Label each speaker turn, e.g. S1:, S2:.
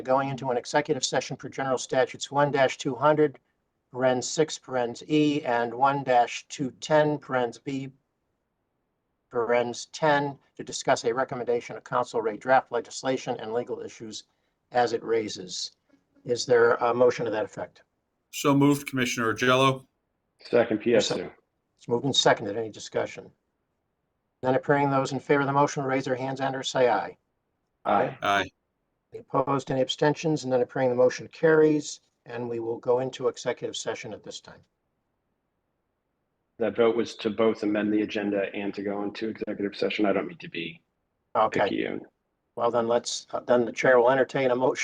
S1: going into an executive session per general statutes one two hundred, parens six, parens E, and one two ten, parens B, parens ten, to discuss a recommendation of council rate draft legislation and legal issues as it raises. Is there a motion to that effect?
S2: So moved, Commissioner Jello.
S1: Second.
S3: Second Pietro.
S1: It's moved and seconded. Any discussion? None appearing. Those in favor of the motion, raise their hands and or say aye.
S3: Aye.
S2: Aye.
S1: Any Opposed, any abstentions? None appearing. The motion carries, and we will go into executive session at this time.
S3: That vote was to both amend the agenda and to go into executive session. I don't need to be
S1: Okay,
S3: picky. and-
S1: well then let's, then the uh, chair will entertain a motion